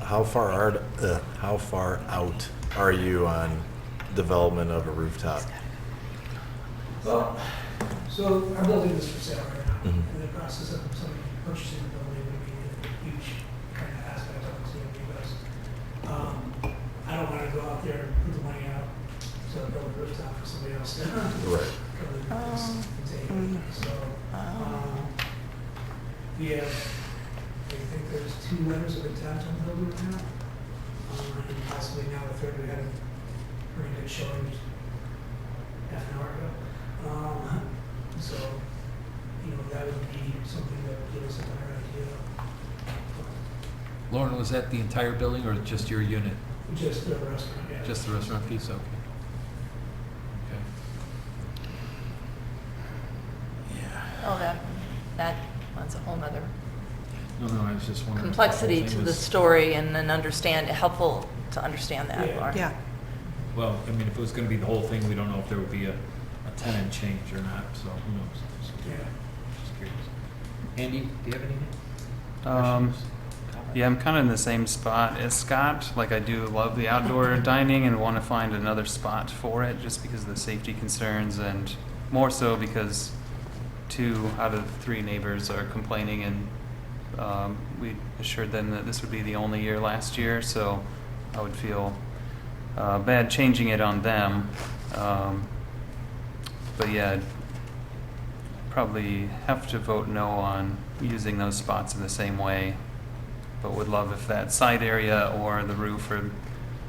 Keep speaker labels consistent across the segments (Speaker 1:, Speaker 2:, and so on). Speaker 1: how far are, uh, how far out are you on development of a rooftop?
Speaker 2: Well, so our building is for sale right now.
Speaker 1: Mhm.
Speaker 2: In the process of somebody purchasing the building would be a huge kind of aspect of it to me because um, I don't want to go out there and put the money out to build a rooftop for somebody else to come
Speaker 1: Right.
Speaker 2: and just take it. So um, we have, I think there's two letters of intent on the building right now. Um, And possibly now the third, we had a pretty good showing half an hour ago. Um, so, you know, that would be something that would give us a better idea.
Speaker 3: Lauren, was that the entire building or just your unit?
Speaker 2: Just the restaurant, yeah.
Speaker 3: Just the restaurant piece, okay. Okay.
Speaker 4: Oh, that, that one's a whole nother
Speaker 3: No, no, I was just wondering. if the whole
Speaker 4: complexity
Speaker 3: thing
Speaker 4: to the
Speaker 3: was-
Speaker 4: story and then understand, helpful to understand that,
Speaker 2: Yeah.
Speaker 4: Laura.
Speaker 5: Yeah,
Speaker 3: Well, I mean, if it was gonna be the whole thing, we don't know if there would be a, a tenant change or not, so who knows? Just
Speaker 2: Yeah.
Speaker 3: just curious. Andy, do you have anything?
Speaker 6: Um,
Speaker 3: Questions? Comments?
Speaker 6: yeah, I'm kind of in the same spot as Scott. Like, I do love the outdoor dining and want to find another spot for it just because of the safety concerns, and more so because two out of three neighbors are complaining, and um, we assured them that this would be the only year last year, so I would feel uh, bad changing it on them. Um, but yeah, I'd probably have to vote no on using those spots in the same way, but would love if that side area or the roof or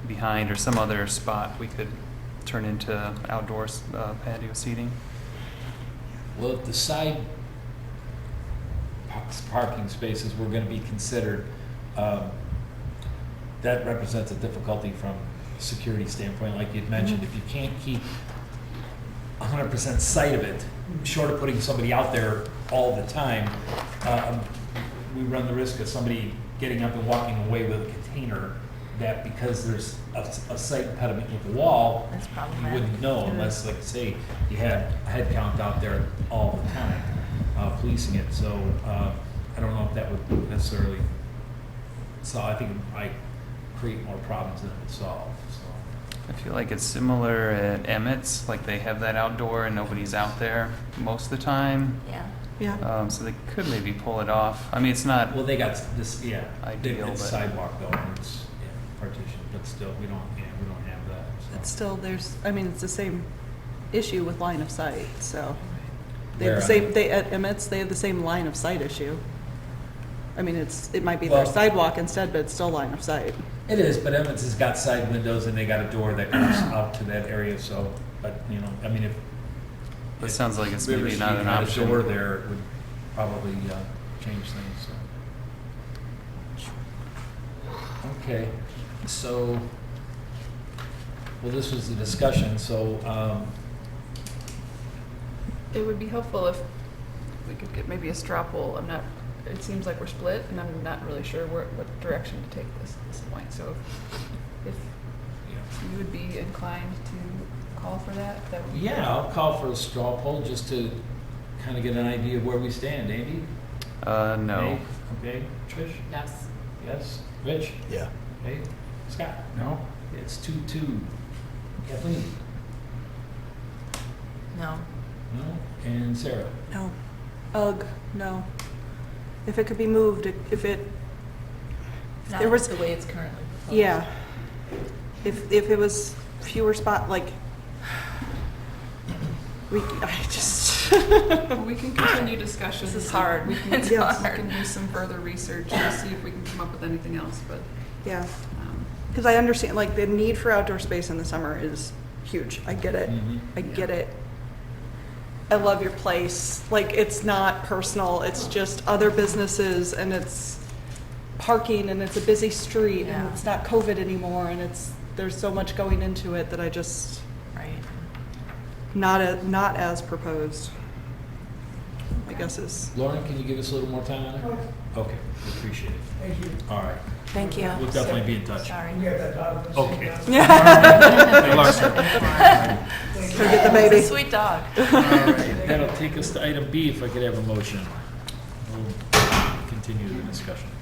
Speaker 6: behind or some other spot we could turn into outdoor s- uh, patio seating.
Speaker 3: Well, if the side pa- parking spaces were gonna be considered, um, that represents a difficulty from a security standpoint, like you'd mentioned, if you can't keep hundred percent sight of it, short of putting somebody out there all the time, um, we run the risk of somebody getting up and walking away with a container that because there's a, a sight impediment with the wall,
Speaker 4: That's
Speaker 3: you
Speaker 4: problematic.
Speaker 3: wouldn't know unless, like, say, you had a head count out there all the time, uh, policing it, so, uh, I don't know if that would necessarily, so I think it might create more problems than it would solve, so.
Speaker 6: I feel like it's similar at Emmett's, like they have that outdoor and nobody's out there most of the time.
Speaker 4: Yeah.
Speaker 5: yeah.
Speaker 6: Um, so they could maybe pull it off. I mean, it's not,
Speaker 3: Well, they got this, yeah, they-
Speaker 6: Ideal,
Speaker 3: it's
Speaker 6: but-
Speaker 3: sidewalk though, and it's, yeah, partition, but still, we don't, yeah, we don't have that, so.
Speaker 5: It's still, there's, I mean, it's the same issue with line of sight, so. They
Speaker 3: Where uh,
Speaker 5: have
Speaker 3: on-
Speaker 5: the same, they, at Emmett's, they have the same line of sight issue. I mean, it's, it might be
Speaker 3: Well-
Speaker 5: their sidewalk instead, but it's still line of sight.
Speaker 3: It is, but Emmons has got side windows and they got a door that comes out to that area, so, but, you know, I mean, if.
Speaker 6: That
Speaker 3: if
Speaker 6: sounds like it's
Speaker 3: River
Speaker 6: maybe
Speaker 3: Street
Speaker 6: not an
Speaker 3: had a
Speaker 6: option.
Speaker 3: Door there it would probably, uh, change things, so. Okay, so, well, this was the discussion, so, um,
Speaker 7: It would be helpful if we could get maybe a straw poll. I'm not, it seems like we're split, and I'm not really sure where, what direction to take this at this point. So if
Speaker 3: you know,
Speaker 7: you would be inclined to call for that, that would be.
Speaker 3: yeah, I'll call for a straw poll just to kind of get an idea of where we stand. Andy?
Speaker 6: uh, no.
Speaker 3: Nate? Okay, Trish?
Speaker 7: Yes.
Speaker 3: Yes. Rich?
Speaker 1: Yeah.
Speaker 3: Hey, Scott? No? It's two, two. Kathleen?
Speaker 4: No.
Speaker 3: No? And Sarah?
Speaker 5: No. Ugh, no. If it could be moved, it- if it,
Speaker 4: Not
Speaker 5: There was-
Speaker 4: the way it's currently proposed.
Speaker 5: yeah. If, if it was fewer spot, like, we, I just,
Speaker 7: Well, we can continue discussion.
Speaker 4: This is hard.
Speaker 7: We can,
Speaker 4: It's
Speaker 7: we
Speaker 5: hard.
Speaker 7: can do some further research to see if we can come up with anything else, but,
Speaker 5: yeah.
Speaker 7: um,
Speaker 5: Because I understand, like, the need for outdoor space in the summer is huge. I get it.
Speaker 3: Mhm.
Speaker 5: I get it. I love your place. Like, it's not personal, it's just other businesses and it's parking and it's a busy street and
Speaker 4: Yeah.
Speaker 5: it's not COVID anymore and it's, there's so much going into it that I just,
Speaker 4: Right.
Speaker 5: not, a- not as proposed, I guess is.
Speaker 3: Lauren, can you give us a little more time on it?
Speaker 2: Okay,
Speaker 3: Okay, we appreciate it.
Speaker 2: Thank you.
Speaker 3: All right.
Speaker 4: Thank you.
Speaker 3: We'll definitely be in touch.
Speaker 4: Sorry.
Speaker 2: We have that dog. that's-
Speaker 3: Okay. Hey, Lauren.
Speaker 5: Go
Speaker 2: Thank you.
Speaker 5: get the
Speaker 4: It's a
Speaker 5: baby.
Speaker 4: sweet dog.
Speaker 3: All right, That'll take us to item B, if I could have a motion. We'll continue the discussion.